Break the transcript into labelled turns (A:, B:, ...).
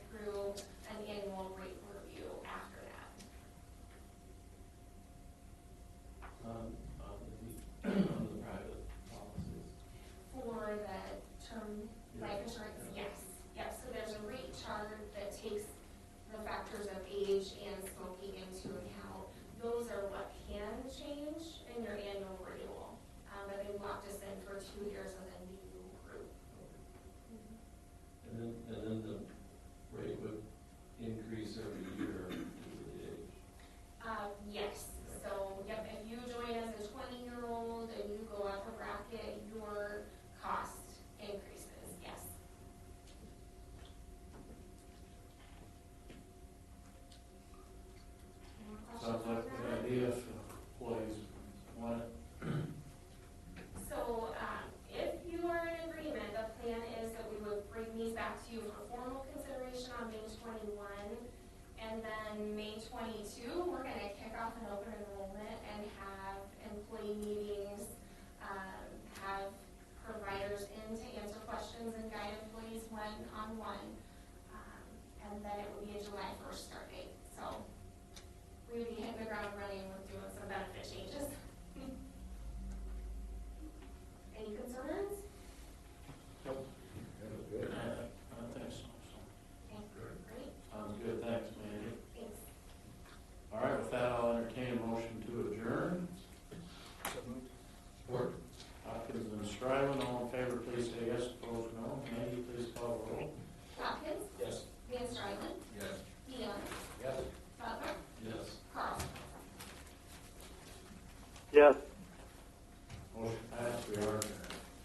A: Um,
B: in their annual renewal, um, but they locked us in for two years with a new group.
A: And then, and then the rate would increase every year due to the age.
B: Uh, yes, so, yep, if you join as a twenty-year-old and you go up a bracket, your cost increases, yes.
C: Sounds like uh,
B: Any more questions on
C: a
B: that?
C: good idea for employees, want it,
B: So, um, if you are in agreement, the plan is that we would bring these back to you for formal consideration on May twenty-one. And then May twenty-two, we're gonna kick off an open enrollment and have employee meetings, um, have providers in to answer questions and guide employees one-on-one. Um, And then it would be a July first start date, so we would be hitting the ground running with doing some benefit changes. Any concerns?
A: Uh,